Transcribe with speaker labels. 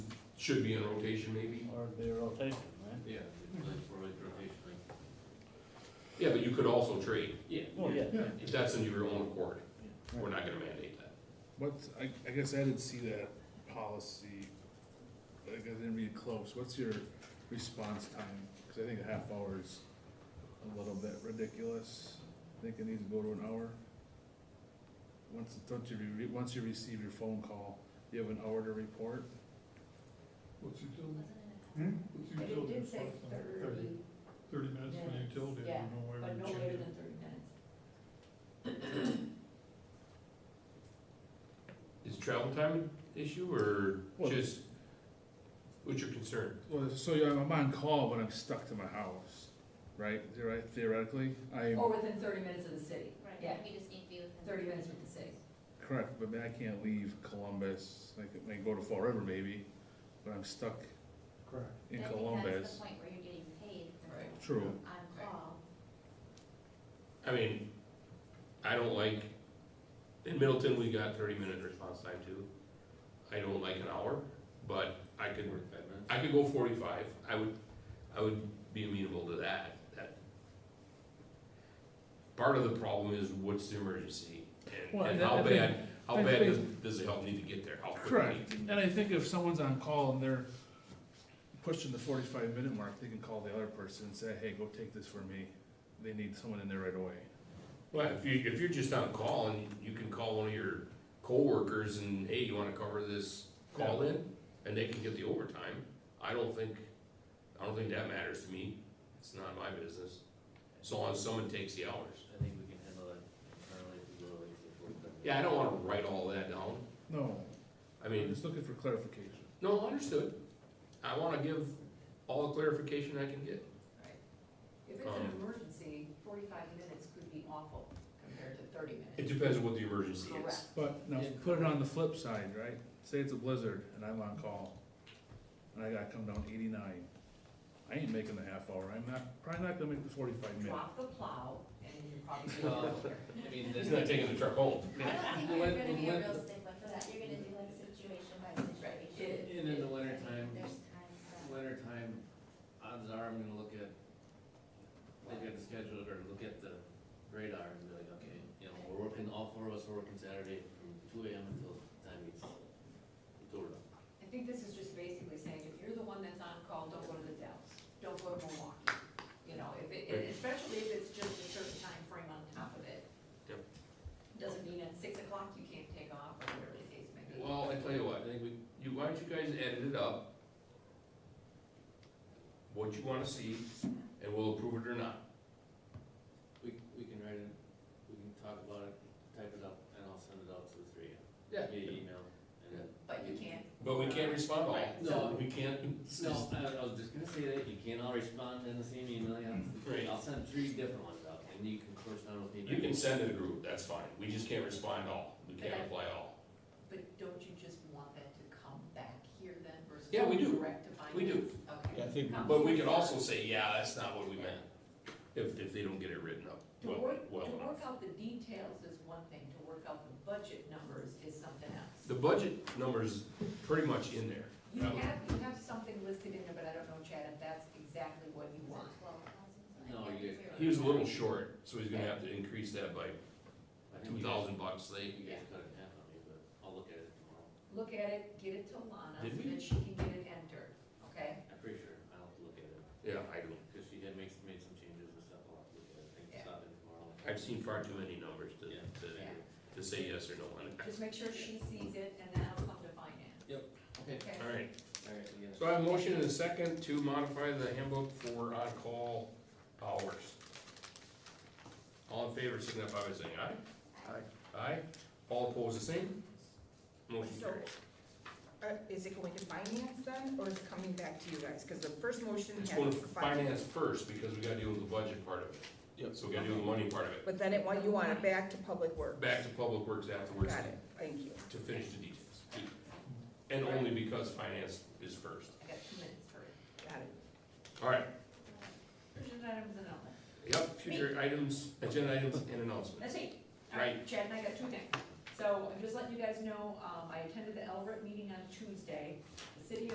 Speaker 1: should be in rotation maybe.
Speaker 2: or it'd be a rotation, right?
Speaker 1: Yeah.
Speaker 3: rotation, like,
Speaker 1: Yeah, but you could also trade,
Speaker 3: yeah.
Speaker 2: Well, Oh, yeah,
Speaker 4: Yeah,
Speaker 1: if that's in your own accord,
Speaker 2: right.
Speaker 1: we're not gonna mandate that.
Speaker 4: what's, I, I guess I didn't see that policy, like, I didn't read close, what's your response time? Cause I think a half hour is a little bit ridiculous, I think it needs to go to an hour. Once, don't you, re- once you receive your phone call, you have an hour to report,
Speaker 5: What's utility?
Speaker 6: Hmm?
Speaker 5: What's
Speaker 6: But it
Speaker 5: utility?
Speaker 6: did say thirty,
Speaker 5: Thirty minutes for
Speaker 6: minutes,
Speaker 5: utility, I
Speaker 6: yeah,
Speaker 5: don't know why
Speaker 6: but
Speaker 5: we
Speaker 6: no
Speaker 5: changed
Speaker 6: later
Speaker 5: it.
Speaker 6: than thirty minutes.
Speaker 1: Is travel time an issue or
Speaker 4: Well-
Speaker 1: just, what's your concern?
Speaker 4: well, so yeah, I'm on call, but I'm stuck to my house, right, Theori- theoretically, I'm.
Speaker 6: Or within thirty minutes of the city, yeah,
Speaker 7: Right, we just need to be within.
Speaker 6: thirty minutes with the city.
Speaker 4: Correct, but man, I can't leave Columbus, I could, I could go to Fall River maybe, but I'm stuck
Speaker 5: Correct.
Speaker 4: in
Speaker 7: Then That's
Speaker 4: Columbus.
Speaker 7: the point where you're getting paid for
Speaker 6: Right.
Speaker 4: True,
Speaker 7: on call.
Speaker 1: I mean, I don't like, in Middleton, we got thirty minute response time too. I don't like an hour, but I could,
Speaker 3: Forty-five minutes.
Speaker 1: I could go forty-five, I would, I would be amenable to that, that. Part of the problem is what's the emergency and,
Speaker 4: Well,
Speaker 1: and
Speaker 4: and I
Speaker 1: how
Speaker 4: think-
Speaker 1: bad, how
Speaker 4: I
Speaker 1: bad does,
Speaker 4: think-
Speaker 1: does the help need to get there, how quickly?
Speaker 4: correct, and I think if someone's on call and they're pushing the forty-five minute mark, they can call the other person and say, hey, go take this for me. They need someone in there right away.
Speaker 1: Well, if you, if you're just on call and you can call one of your coworkers and, hey, you wanna cover this call in? And they can get the overtime, I don't think, I don't think that matters to me, it's not my business, so long as someone takes the hours.
Speaker 3: I think we can handle that internally if we go like the forty-five.
Speaker 1: Yeah, I don't wanna write all that down,
Speaker 4: No,
Speaker 1: I
Speaker 4: I'm
Speaker 1: mean,
Speaker 4: just looking for clarification.
Speaker 1: no, understood, I wanna give all the clarification I can get.
Speaker 6: Right. If it's an
Speaker 1: Um,
Speaker 6: emergency, forty-five minutes could be awful compared to thirty
Speaker 1: It
Speaker 6: minutes.
Speaker 1: depends on what the emergency is.
Speaker 6: Correct.
Speaker 4: But now,
Speaker 3: Yeah.
Speaker 4: put it on the flip side, right? Say it's a blizzard and I'm on call, and I gotta come down eighty-nine. I ain't making the half hour, I'm not, probably not gonna make the forty-five minute.
Speaker 6: Drop the plow and you're probably.
Speaker 1: Uh,
Speaker 3: Well,
Speaker 6: gonna go
Speaker 3: I mean,
Speaker 1: He's
Speaker 3: there's
Speaker 1: not
Speaker 3: not
Speaker 1: taking the truck home.
Speaker 7: I don't think
Speaker 3: The
Speaker 7: you're
Speaker 3: win-
Speaker 7: gonna
Speaker 3: the
Speaker 7: be a
Speaker 3: win-
Speaker 7: real stickler for that, you're gonna do like situation by situation.
Speaker 3: And in the winter time,
Speaker 7: There's times that.
Speaker 3: winter time, odds are I'm gonna look at, look at the schedule or look at the radar and be like, okay, you know, we're working, all four of us are working Saturday from two AM until the time it's door up.
Speaker 6: I think this is just basically saying, if you're the one that's on call, don't go to the Dells, don't go to Milwaukee. You know, if it, and especially if it's just a certain time frame on top of it.
Speaker 1: Yep.
Speaker 6: Doesn't mean at six o'clock you can't take off or whatever the case may be.
Speaker 1: Well, I tell you what, I think we, you, why don't you guys edit it up? What you wanna see, and we'll approve it or not.
Speaker 3: We, we can write it, we can talk about it, type it up, and I'll send it out to the three, of you via email, and then.
Speaker 6: But you can't.
Speaker 1: But we can't respond all,
Speaker 6: Right,
Speaker 1: no,
Speaker 3: so-
Speaker 1: we can't,
Speaker 3: No, I, I was just gonna say that, you can't all respond in the same email, you have to-
Speaker 1: Right.
Speaker 3: I'll send three different ones out, and you can correspond with me.
Speaker 1: you can send it a group, that's fine, we just can't respond all, we can't reply all.
Speaker 6: But don't you just want that to come back here then versus?
Speaker 1: Yeah, we do.
Speaker 6: Direct to finance?
Speaker 1: We do.
Speaker 6: Okay.
Speaker 5: Yeah, I think-
Speaker 6: Come
Speaker 1: But we
Speaker 6: here.
Speaker 1: could also say, yeah, that's not what we meant, if, if they don't get it written up
Speaker 6: To
Speaker 1: well,
Speaker 6: work, to
Speaker 1: well enough.
Speaker 6: work out the details is one thing, to work out the budget numbers is something else.
Speaker 1: The budget number's pretty much in there.
Speaker 6: You
Speaker 1: Um,
Speaker 6: have, you have something listed in there, but I don't know, Chad, if that's exactly what you
Speaker 7: Is it
Speaker 6: want.
Speaker 7: 12,000?
Speaker 3: No,
Speaker 7: I
Speaker 3: you-
Speaker 7: can't
Speaker 1: He was a little
Speaker 7: remember.
Speaker 1: short, so he's gonna have to increase that by
Speaker 3: I
Speaker 1: two
Speaker 3: think you guys-
Speaker 1: thousand bucks, they,
Speaker 3: You guys cut it in half on me, but I'll look at it tomorrow.
Speaker 6: Look at it, get it to Lana,
Speaker 1: Did
Speaker 6: so
Speaker 1: we?
Speaker 6: that she can get it entered, okay?
Speaker 3: I'm pretty sure I'll have to look at it,
Speaker 1: yeah, I don't.
Speaker 3: because she had made, made some changes and stuff, I'll have to look at it, I can
Speaker 6: Yeah.
Speaker 3: stop in tomorrow.
Speaker 1: I've seen far too many numbers to,
Speaker 3: Yeah.
Speaker 1: to, to say yes or no on it.
Speaker 6: Just make sure she sees it, and then I'll come to finance,
Speaker 3: Okay,
Speaker 6: okay?
Speaker 1: All right,
Speaker 3: alright, we got it.
Speaker 1: so I have a motion and a second to modify the handbook for on-call hours. All in favor, signify by saying aye. Aye. All opposed, the same? Motion
Speaker 8: So,
Speaker 1: carries.
Speaker 8: Uh, is it going to finance then, or is it coming back to you guys? Because the first motion
Speaker 1: It's
Speaker 8: had.
Speaker 1: going to
Speaker 8: fi-
Speaker 1: finance first, because we gotta deal with the budget part of it.
Speaker 5: Yep.
Speaker 1: So we gotta deal with the money part of it.
Speaker 8: But then it, want- you want it back to public works.
Speaker 1: Back to public works afterwards
Speaker 8: Got it, thank you.
Speaker 1: to finish the details. And only because finance is first.
Speaker 6: I got two minutes for it.
Speaker 8: Got it.
Speaker 1: All right,
Speaker 6: Urgent items and all
Speaker 1: yep, future items, agenda items and announcements.
Speaker 6: That's it. All right, Chad and I got two things. So I'm just letting you guys know, um, I attended the Elbert meeting on Tuesday.